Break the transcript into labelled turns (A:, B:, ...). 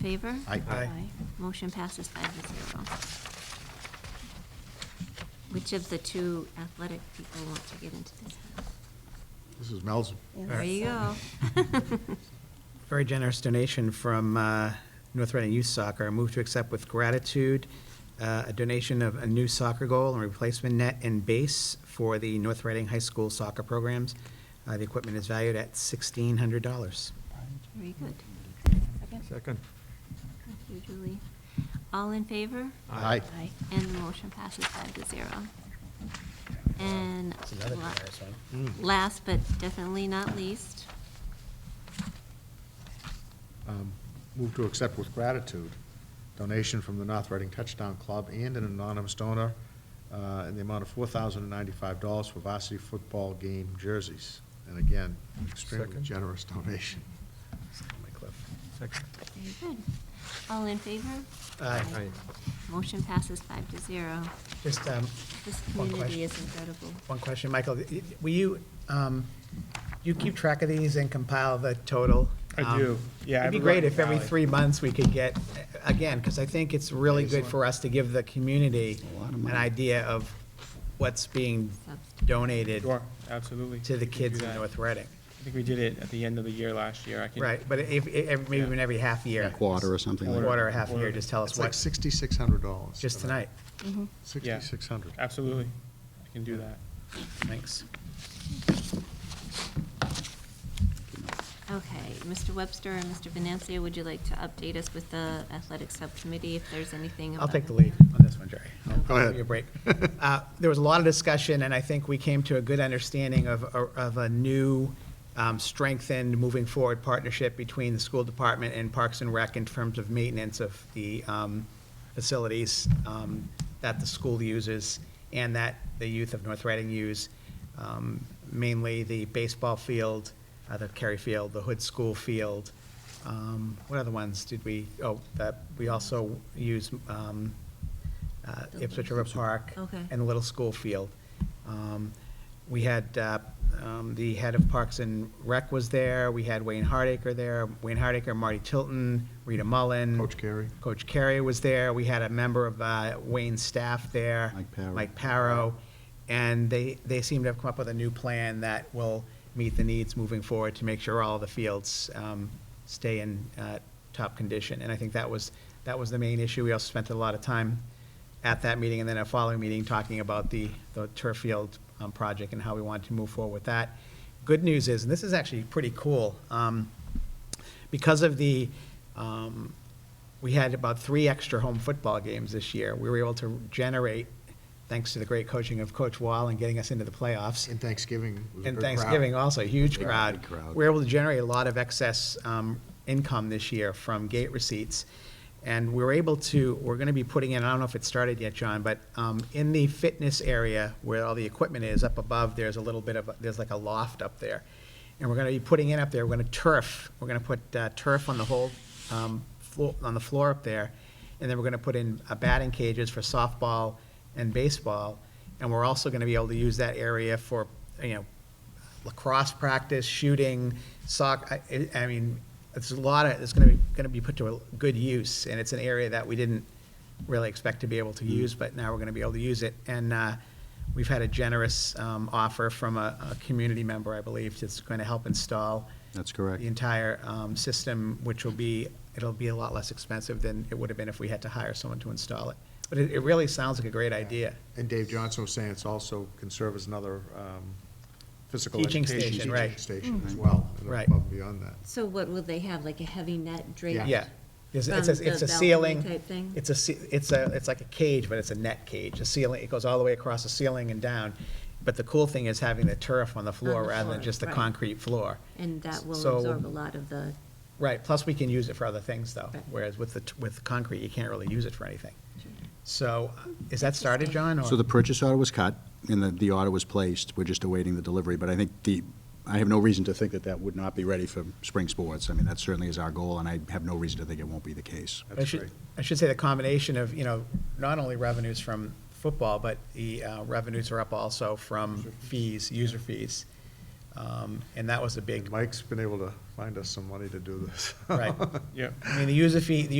A: Favor?
B: Aye. Aye.
A: Motion passes five to zero. Which of the two athletic people want to get into this?
B: This is Mel's.
A: There you go.
C: Very generous donation from uh, North Reading Youth Soccer. I move to accept with gratitude uh, a donation of a new soccer goal and replacement net and base for the North Reading High School soccer programs. Uh, The equipment is valued at $1,600.
A: Very good.
D: Second.
A: Thank you, Julie. All in favor?
B: Aye.
A: And the motion passes five to zero. And
C: It's another
A: la-
C: generous one.
B: Hmm.
A: last but definitely not least,
B: Um, Move to accept with gratitude donation from the North Reading Touchdown Club and an anonymous donor uh, in the amount of $4,095 for varsity football game jerseys. And again, extremely
D: Second.
B: generous donation.
D: Second.
A: very good. All in favor?
C: Aye.
D: Aye.
A: Motion passes five to zero.
C: Just um,
A: This
C: One
A: community
C: question.
A: is incredible.
C: one question, Michael. Will you, um, you keep track of these and compile the total?
E: I do.
C: Um,
E: Yeah, I
C: It'd be
E: have a
C: great
E: running
C: if every
E: tally.
C: three months we could get, again, because I think it's really good for us to give the community an idea of what's being donated
E: Sure, absolutely.
C: to the
E: We can
C: kids
E: do
C: in
E: that.
C: North Reading.
E: I think we did it at the end of the year last year. I can.
C: Right, but if, if, maybe even every half year.
F: Quarter or something like that.
C: Quarter or half year, just tell us
B: It's like
C: what,
B: $6,600.
C: just tonight.
E: Yeah.
B: 6,600.
E: Absolutely. I can do that.
C: Thanks.
A: Okay, Mr. Webster and Mr. Venancia, would you like to update us with the athletic subcommittee if there's anything?
C: I'll
A: about
C: take the
A: it?
C: lead on this one, Jerry. I'll
B: Go ahead.
C: Give you a break. Uh, There was a lot of discussion, and I think we came to a good understanding of, uh, of a new um, strengthened, moving forward partnership between the school department and Parks and Rec in terms of maintenance of the um, facilities um, that the school uses and that the youth of North Reading use, um, mainly the baseball field, uh, the Kerry Field, the Hood School Field. Um, What other ones did we, oh, that, we also use um, uh, Ipswich River Park.
A: Okay.
C: And the Little School Field. Um, We had, uh, um, the head of Parks and Rec was there, we had Wayne Hardacre there, Wayne Hardacre, Marty Tilton, Rita Mullen.
B: Coach Carey.
C: Coach Carey was there, we had a member of uh, Wayne's staff there.
F: Mike Parrow.
C: Parrow. and they, they seem to have come up with a new plan that will meet the needs moving forward to make sure all the fields um, stay in uh, top condition. And I think that was, that was the main issue. We also spent a lot of time at that meeting and then a following meeting talking about the, the turf field um, project and how we wanted to move forward with that. Good news is, and this is actually pretty cool, um, because of the, um, we had about three extra home football games this year. We were able to generate, thanks to the great coaching of Coach Wall and getting us into the playoffs.
B: And Thanksgiving was a
C: And
B: good crowd.
C: Thanksgiving also, huge
F: Big,
C: crowd.
F: big crowd.
C: We're able to generate a lot of excess um, income this year from gate receipts. And we're able to, we're going to be putting in, I don't know if it started yet, John, but um, in the fitness area where all the equipment is, up above, there's a little bit of, a- there's like a loft up there. And we're going to be putting in up there, we're going to turf, we're going to put uh, turf on the whole, um, floor- on the floor up there. And then we're going to put in uh, batting cages for softball and baseball. And we're also going to be able to use that area for, you know, lacrosse practice, shooting, soccer. I, I mean, it's a lot of, it's going to be, going to be put to a good use, and it's an area that we didn't really expect to be able
F: Mm-hmm.
C: to use, but now we're going to be able to use it. And uh, we've had a generous um, offer from a, a community member, I believe, that's going to help install
F: That's correct.
C: the entire um, system, which will be, it'll be a lot less expensive than it would have been if we had to hire someone to install it. But it, it really sounds like a great idea.
B: And Dave Johnson was saying it's also can serve as another um, physical
C: Teaching
B: education.
C: station, right.
B: Teaching station as well, and
C: Right.
B: above and beyond that.
A: So what will they have, like a heavy net draped?
C: Yeah. It's
A: From
C: it's a, it's
A: the
C: a
A: balcony
C: ceiling.
A: type thing?
C: It's a, ce- it's a, it's like a cage, but it's a net cage, a ceiling, it goes all the way across the ceiling and down. But the cool thing is having the turf on the floor
A: the
C: rather than
A: floor,
C: just the
A: right.
C: concrete floor.
A: And that will
C: So-
A: absorb a lot of the,
C: Right, plus we can use it for other things though,
A: Right.
C: whereas with the, t- with concrete, you can't really use it for anything. So, uh, is that started, John, or?
F: So the purchase order was cut, and the, the order was placed, we're just awaiting the delivery, but I think the, I have no reason to think that that would not be ready for spring sports. I mean, that certainly is our goal, and I have no reason to think it won't be the case.
C: I should, I should say the combination of, you know, not only revenues from football, but the uh, revenues are up also from fees, user fees. Um, And that was a big,
B: Mike's been able to find us some money to do this.
C: right.
E: Yeah.
C: I mean, the user fee, the